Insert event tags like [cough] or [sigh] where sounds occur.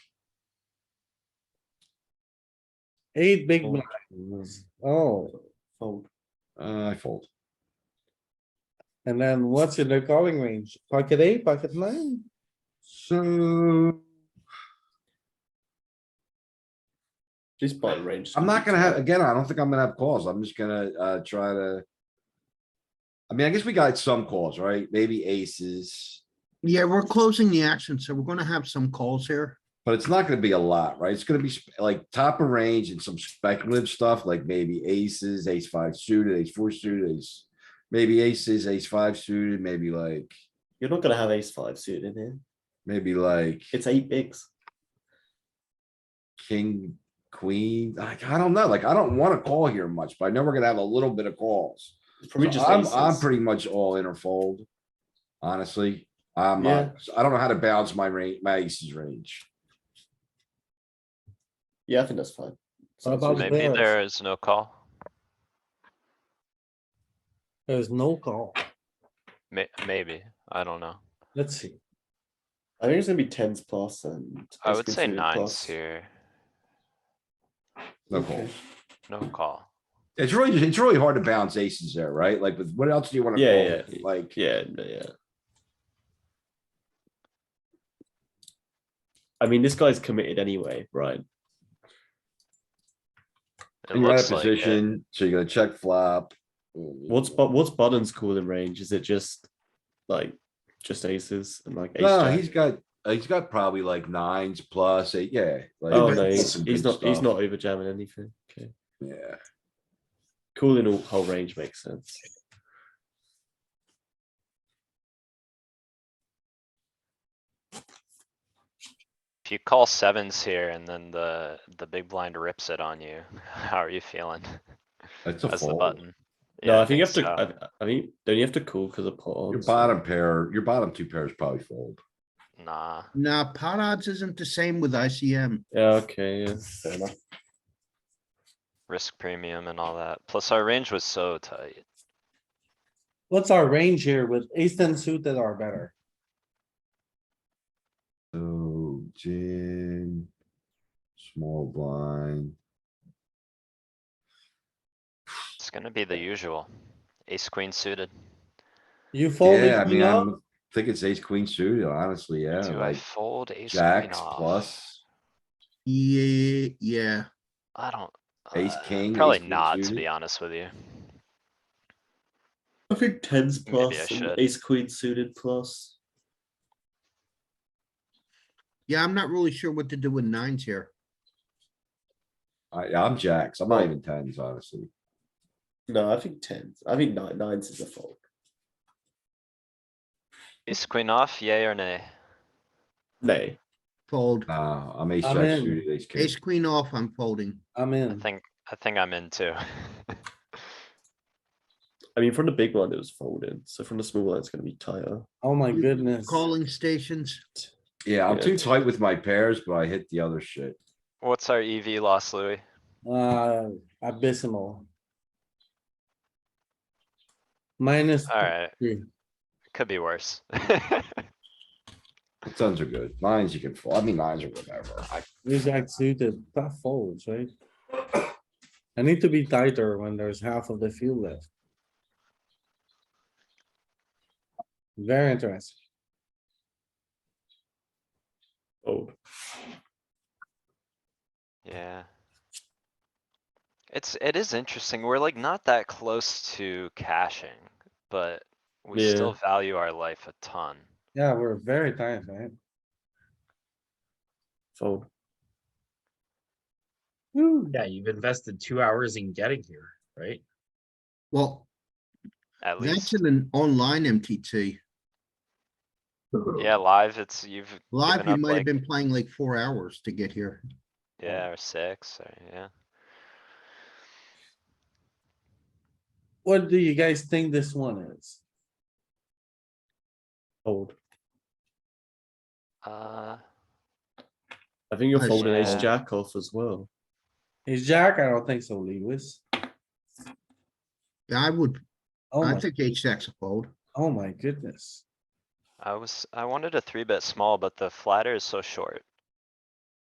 Eight big Fold. blinds. Oh, Fold. Uh, I fold. and then what's in the calling range? Pocket eight, pocket nine? So This button range. I'm not gonna have, again, I don't think I'm gonna have calls. I'm just gonna, uh, try to. I mean, I guess we got some calls, right? Maybe aces, Yeah, we're closing the action, so we're gonna have some calls here. but it's not gonna be a lot, right? It's gonna be sp- like top of range and some speculative stuff, like maybe aces, ace five suited, ace four suited, ace. Maybe aces, ace five suited, maybe like, You're not gonna have ace five suited in here. maybe like It's eight bigs. king, queen. Like, I don't know, like, I don't wanna call here much, but I know we're gonna have a little bit of calls. It's probably So just I'm, aces. I'm pretty much all in or fold. Honestly, I'm Yeah. not, I don't know how to balance my range, my aces range. Yeah, I think that's fine. What about Sounds Maybe Yes. there is no call. There's no call. May- maybe, I don't know. Let's see. I think it's gonna be tens plus and. I ace would queen say suited nines plus. here, No Okay. calls. no call. It's really, it's really hard to balance aces there, right? Like, with what else do you wanna Yeah, call? yeah, yeah. with? Like, Yeah, no, yeah. I mean, this guy's committed anyway, right? It you're out of looks like uh, it. position, so you're gonna check flop. What's but what's Budden's calling range? Is it just like just aces and like ace No, jack? he's got, uh, he's got probably like nines plus eight, yeah. like, Oh that's no, he's, some he's good not he's stuff. not over jamming anything. Okay. Yeah, Calling all whole range makes sense. If you call sevens here and then the, the big blind rips it on you, [laughs] how are you feeling? that's a That's the fold. button. Yeah, uh, No, I think you have to. so. I, I think don't you have to call because of pawns? Your bottom pair, your bottom two pairs probably fold. Nah, Nah, pot odds isn't the same with ICM. Yeah. Okay. Yeah. Fair enough. risk premium and all that. Plus our range was so tight. What's our range here with ace ten suited are better? So jam, small blind. It's gonna be the usual. Ace queen suited. You fold it, Yeah, I you mean, I know? think it's ace queen suited, honestly, yeah, Do I like fold ace queen jacks off? plus, Yeah, yeah. I don't. Ace uh, king, Probably ace queen not, to suited. be honest with you. I think tens Maybe I plus and should. ace queen suited plus. Yeah, I'm not really sure what to do with nines here. I, I'm jacks, I'm Oh. not even tens, honestly. No, I think tens. I think nine, nines is a fold. Ace queen off, yay or nay? Nay. Fold. Nah, I'm ace I'm jack in. suited, ace king. Ace queen off, I'm folding. I'm [laughs] I in. think, I think I'm in too. [laughs] I mean, from the big one it was folded, so from the small one it's gonna be tighter. Oh my goodness. Calling stations. Yeah, I'm Yeah. too tight with my pairs, but I hit the other shit. What's our EV loss, Louis? Uh, abysmal. Minus Alright, three. could be worse. [laughs] Tons are good, nines you can fold, I mean, nines or whatever, I, These jack suited, tough folds, right? I need to be tighter when there's half of the field left. Very interesting. Fold. Yeah. It's, it is interesting. We're like not that close to caching, but we Yeah. still value our life a ton. Yeah, we're very tight, right? Fold. Whew. Yeah, you've invested two hours in getting here, right? Well, At that's least, in an online MTT. yeah, live, it's, you've Live, given you up might have like, been playing like four hours to get here. yeah, or six, or, yeah. What do you guys think this one is? Fold. Uh, I think you're Nice. folding ace Yeah. jack off as well. Is Jack? I don't think so, Lewis. Yeah, I would, Oh I my, think H jack's a fold. oh my goodness. I was, I wanted a three bet small, but the flatter is so short.